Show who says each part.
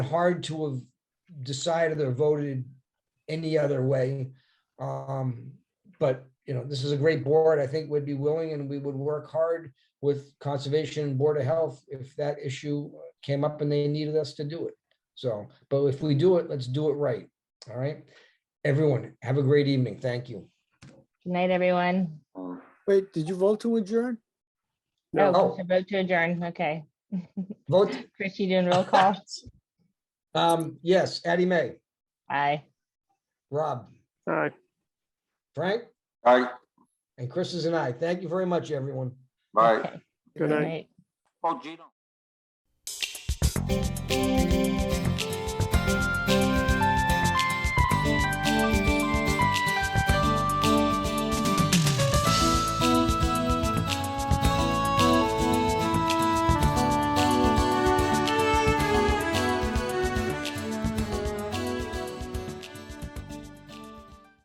Speaker 1: hard to have decided or voted any other way. Um, But, you know, this is a great board. I think would be willing and we would work hard with Conservation and Board of Health if that issue came up and they needed us to do it. So, but if we do it, let's do it right. All right? Everyone, have a great evening. Thank you.
Speaker 2: Good night, everyone.
Speaker 3: Wait, did you vote to adjourn?
Speaker 1: No.
Speaker 2: Oh, to vote to adjourn, okay.
Speaker 1: Vote,
Speaker 2: Chris, you doing roll call?
Speaker 1: um, yes, Addie May,
Speaker 2: Aye.
Speaker 1: Rob,
Speaker 4: Aye.
Speaker 1: Frank,
Speaker 5: All right,
Speaker 1: and Chris is an I. Thank you very much, everyone.
Speaker 2: É.
Speaker 5: bye.
Speaker 2: Okay.
Speaker 4: Good night.
Speaker 5: Oh, Gino.